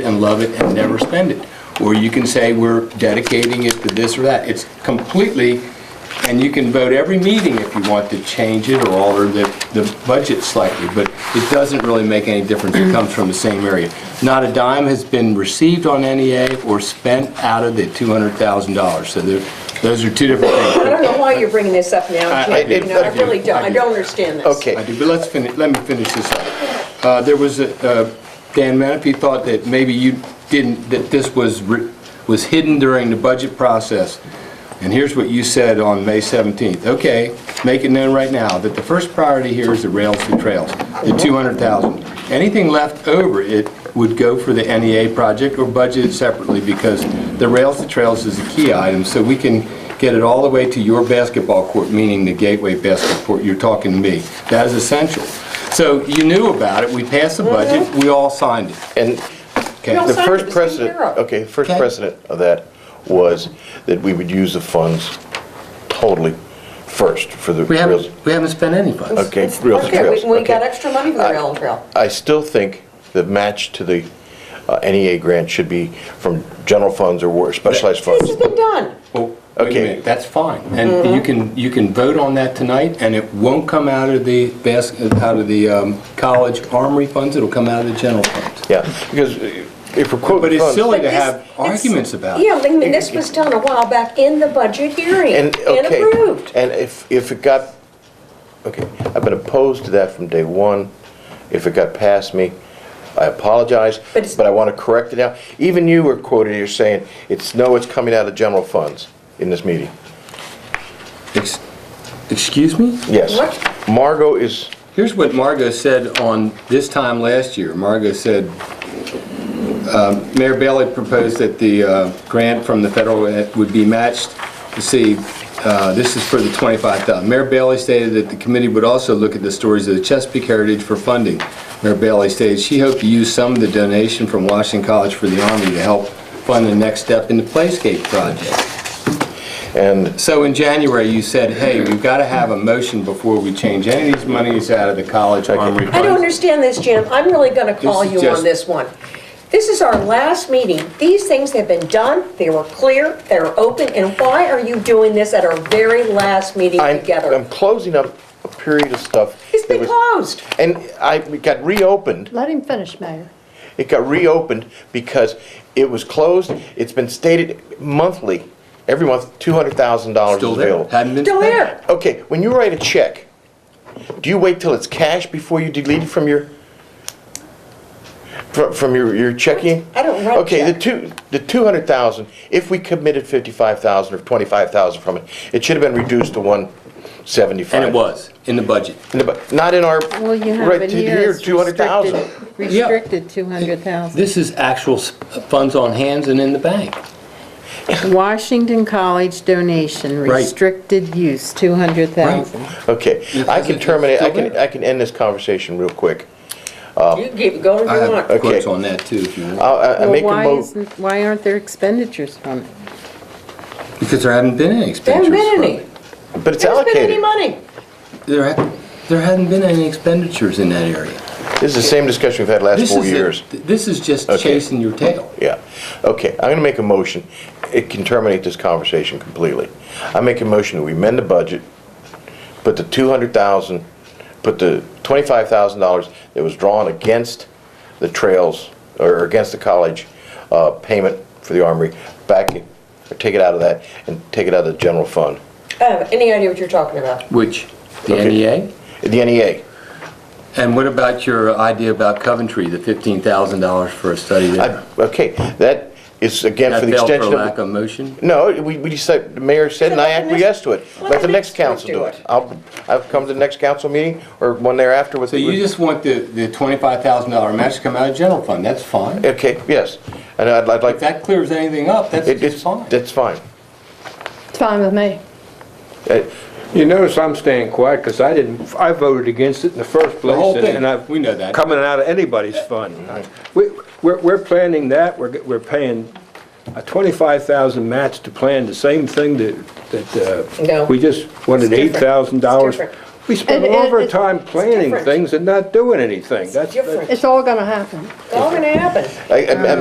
and love it and never spend it. Or you can say, we're dedicating it to this or that. It's completely, and you can vote every meeting if you want to change it or alter the, the budget slightly, but it doesn't really make any difference. It comes from the same area. Not a dime has been received on NEA or spent out of the $200,000. So there, those are two different things. I don't know why you're bringing this up I- now, I Jim, do. you know, I I do. really don't, I I do. don't understand this. Okay. I do, but let's finish, let me finish this up. Uh, There was, a- uh, Dan Menefee thought that maybe you didn't, that this was, re- was hidden during the budget process. And here's what you said on May 17th. Okay, make it known right now that the first priority here is the rails to trails, the 200,000. Anything left over, it would go for the NEA project or budgeted separately because the rails to trails is a key item, so we can get it all the way to your basketball court, meaning the Gateway basketball court, you're talking to me. That is essential. So you knew about it, we passed the budget, we all signed it. And Okay. No, the sorry, first it was in precedent, Europe. okay, first Okay. precedent of that was that we would use the funds totally first for the We rails. haven't, we haven't spent any funds. Okay, It's- rails and okay, we- trails. We okay. got extra money for the rail and trail. I still think the match to the uh, NEA grant should be from general funds or war- specialized This funds. has been done. Well, wait a Okay. minute, That's fine, and you can, you can vote on that tonight, and it won't come out of the basket, out of the um, college armory funds, it'll come out of the general funds. Yeah, because if we're quoting But it's funds- silly But to this- have it's- arguments about Yeah, it. I mean, this was done a while back in the budget hearing and And, okay. approved. And if, if it got, okay, I've been opposed to that from day one. If it got past me, I apologize, But it's- but I want to correct it now. Even you were quoted, you're saying, it's, no, it's coming out of general funds in this meeting. Ex- Excuse me? Yes. What? Margot is, Here's what Margot said on this time last year. Margot said, um, Mayor Bailey proposed that the uh, grant from the federal e, would be matched to see, uh, this is for the 25,000. Mayor Bailey stated that the committee would also look at the stories of the Chesapeake Heritage for funding. Mayor Bailey stated she hoped to use some of the donation from Washington College for the Army to help fund the next step in the Playscape project. and So in January, you said, hey, we've got to have a motion before we change any of these monies out of the college armory I don't funds. understand this, Jim, I'm really gonna call This is you on just- this one. This is our last meeting, these things have been done, they were clear, they were open, and why are you doing this at our very last meeting I'm, together? I'm closing up a period of stuff. It's that been was- closed. And I, it got reopened Let him finish, Mayor. It got reopened because it was closed. It's been stated monthly, every month, two hundred thousand dollars is Still there, available. hadn't been Still spent. there. Okay, when you write a check, do you wait till it's cash before you delete it from your, fro- from your, your checking? I don't write Okay, the check. two, the two hundred thousand, if we committed fifty-five thousand or twenty-five thousand from it, it should have been reduced to one seventy-five. And it was, in the budget. Not in our, Well, you have right it to here. here, it's two hundred thousand. restricted- Restricted 200,000. This is actual s- funds on hands and in the bank. Washington College donation, Right. restricted use, 200,000. Okay, Yes, I it's- can it's terminate, I still can, there. I can end this conversation real quick. You keep going I if you have want. quotes on that too, if you I- want. I I Well, make a why mo, isn't, why aren't there expenditures from it? Because there haven't been any There expenditures. haven't been any, but it's there hasn't been any money. allocated. There ha- there hadn't been any expenditures in that area. This is the same discussion we've had last This four is a- years. This is just Okay. chasing your tail. Yeah, okay, I'm gonna make a motion, it can terminate this conversation completely. I make a motion that we amend the budget, put the two hundred thousand, put the twenty-five thousand dollars that was drawn against the trails, or against the college, uh, payment for the armory, back, it- or take it out of that, and take it out of the general fund. I don't have Oh, any idea what you're talking about. Which, the Okay. NEA? The E NEA, And what about your idea about Coventry, the $15,000 for a study there? I- Okay, that is again That for the failed for extension lack of. of motion? No, we, we decided, the mayor said, and I Let the next- acquiesced to it. let Let the the next next group council do do it. it. I'll, I'll come to the next council meeting or one thereafter with. So you just want the the $25,000 match to come out of general fund, that's fine. Okay, yes, and I'd, I'd like. If that clears anything up, that's it- it's fine. That's fine. It's fine with me. Uh, You notice I'm staying quiet because I didn't, I voted against it in the first place. The whole and- thing, and I've- we know that. Coming out of anybody's fund. We, we're, we're planning that, we're, we're paying a twenty-five thousand match to plan the same thing that, that, No. uh, we just wanted It's eight thousand different. It's dollars. different. We spent It- it- all of our it- time it's planning different. things and not doing anything. That's, Different, It's all going to happen. it's all gonna happen. I- I- I'm